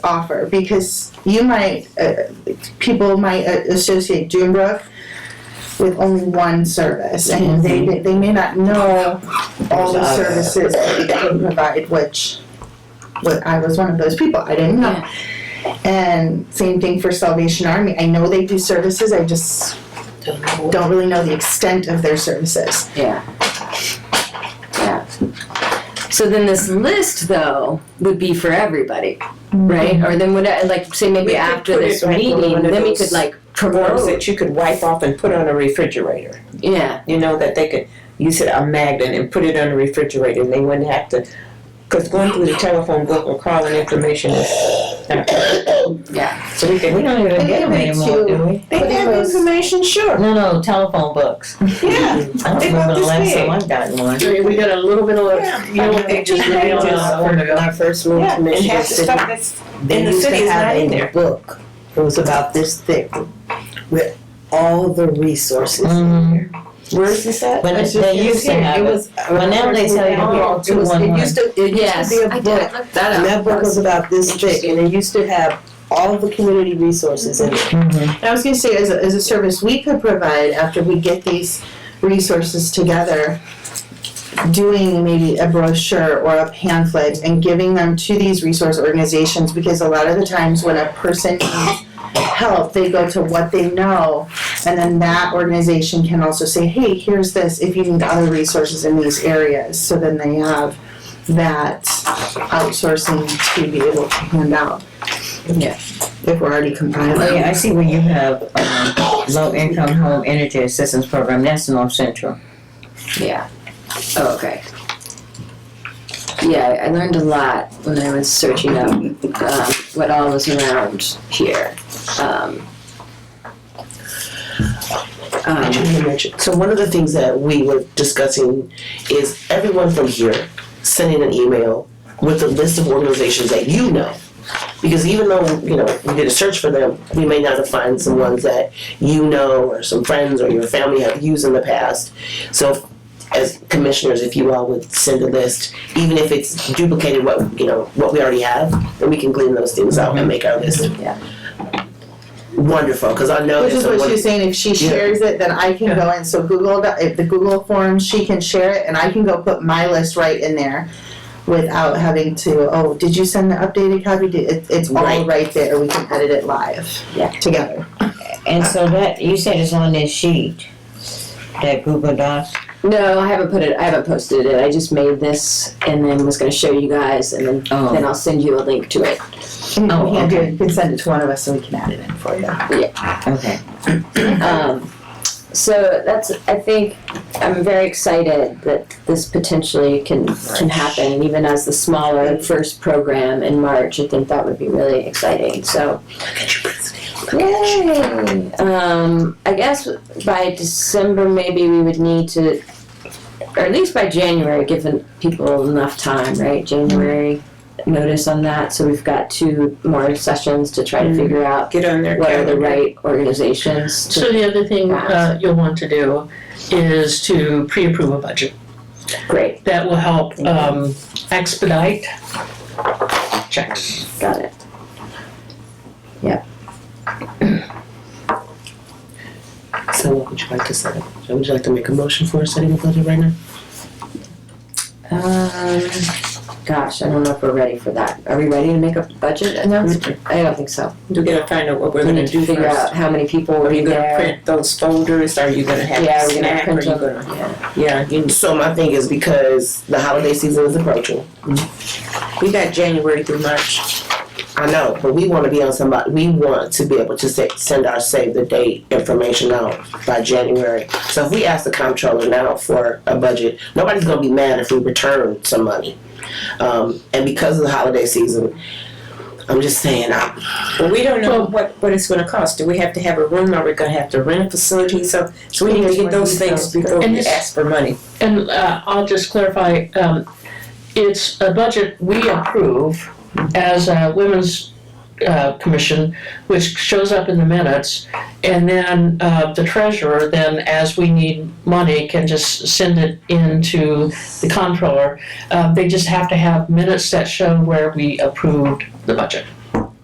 offer because you might uh, people might uh, associate Junebrook with only one service, and they they may not know all the There's others. services that we can provide, which. But I was one of those people. I didn't know. And same thing for Salvation Army. I know they do services. I just Don't know what- don't really know the extent of their services. Yeah. Yeah. So then this list though would be for everybody, right? Or then would I, like say maybe We could after put it this like on meeting, one of then we those could like Forms promote. that you could wipe off and put on a refrigerator. Yeah. you know, that they could use it a magnet and put it on the refrigerator and they wouldn't have to, because going through the telephone book or calling information is. Yeah. So we can, we don't even They get have them it anymore, too. do we? They have information, sure. No, no, telephone books. Yeah. I don't They remember about the this last big. time I got one. We got a little bit Yeah. of, you know, I mean, they just they made on just- us when I first moved Yeah, to and Michigan half the City. stuff that's, They in the used city to is not have in a there. book. It was about this thick with all the resources in Mhm. there. Mm-hmm. where is this at? When they used to have it. Well, now they sell you the whole It was, it 211. used to, it used Yes. to be I a did, book. I looked that up. And that book was about this thick and it used to have all the community resources in it. Mhm. And I was going to say, as a, as a service we could provide after we get these resources together, doing maybe a brochure or a pamphlet and giving them to these resource organizations because a lot of the times when a person needs help, they go to what they know, and then that organization can also say, hey, here's this if you need other resources in these areas. So then they have that outsourcing to be able to hand out. Yeah. If we're already compiling. Oh, yeah, I see where you have, um, low income home energy assistance program, that's North Central. Yeah. Oh, okay. Yeah, I learned a lot when I was searching up um, what all was around here. Um, I um, just wanna mention- So one of the things that we were discussing is everyone from here sending an email with a list of organizations that you know. Because even though, you know, we did a search for them, we may not have found some ones that you know or some friends or your family have used in the past. So if- as commissioners, if you all would send a list, even if it's duplicated what, you know, what we already have, then we can glean those things out and make our list. Yeah. Wonderful, because I know Which there's is a what one- she was saying, if she Yeah. shares it, then I can go in, so Google, Doc- if the Google form, she can share it, and I can go put my list right in there without having to, oh, did you send the updated copy, Did- it, it's all Right. Oh, right there, we can edit it live. Yeah. Together. And so that, you said it's on this sheet, that Google Docs. no, I haven't put it. I haven't posted it. I just made this and then was going to show you guys, and then Oh. then I'll send you a link to it. And if you Oh, can't do it, you can send it to one of us, so we can add it in for you. Okay. Um, so that's, I think, I'm very excited that this potentially can, can happen, and even as the smaller first program in March, I think that would be really exciting, so. Yay! Um, I guess by December, maybe we would need to, or at least by January, giving people enough time, right, January notice on that, so we've got two more sessions to try to figure out Get on their what are the calendar. right organizations to So the other thing uh, you'll want to do is to pre-approve a budget. great That will help um, expedite checks. got it So what would you like to set up? Would you like to make a motion for setting a budget right now? um, gosh i don't know if we're ready for that are we ready to make a budget announcement i don't think so You gotta find out what Mm-hmm. we're we gonna need to do figure first. out how many people will Are be you gonna there print those folders? Are you gonna yeah have we're gonna snack? Are print you them gonna? yeah. Yeah, you, So my thing is because the holiday season is approaching. we got January through March. I know, but we want to be on somebody. We want to be able to se- send our save the date information out by January. So if we ask the comptroller now for a budget, nobody's gonna be mad if we return some money. Um, and because of the holiday season, I'm just saying, I, Well, we don't know what, what it's gonna cost. Do we have to have a room? Are we gonna have to rent a facility? So, so we need to get those things before And we this- ask for money. And uh, I'll just clarify, um, it's a budget we approve as a Women's uh, Commission, which shows up in the minutes. And then uh, the treasurer, then as we need money, can just send it into the Um, comptroller. Uh, They just have to have minutes that show where we approved the budget.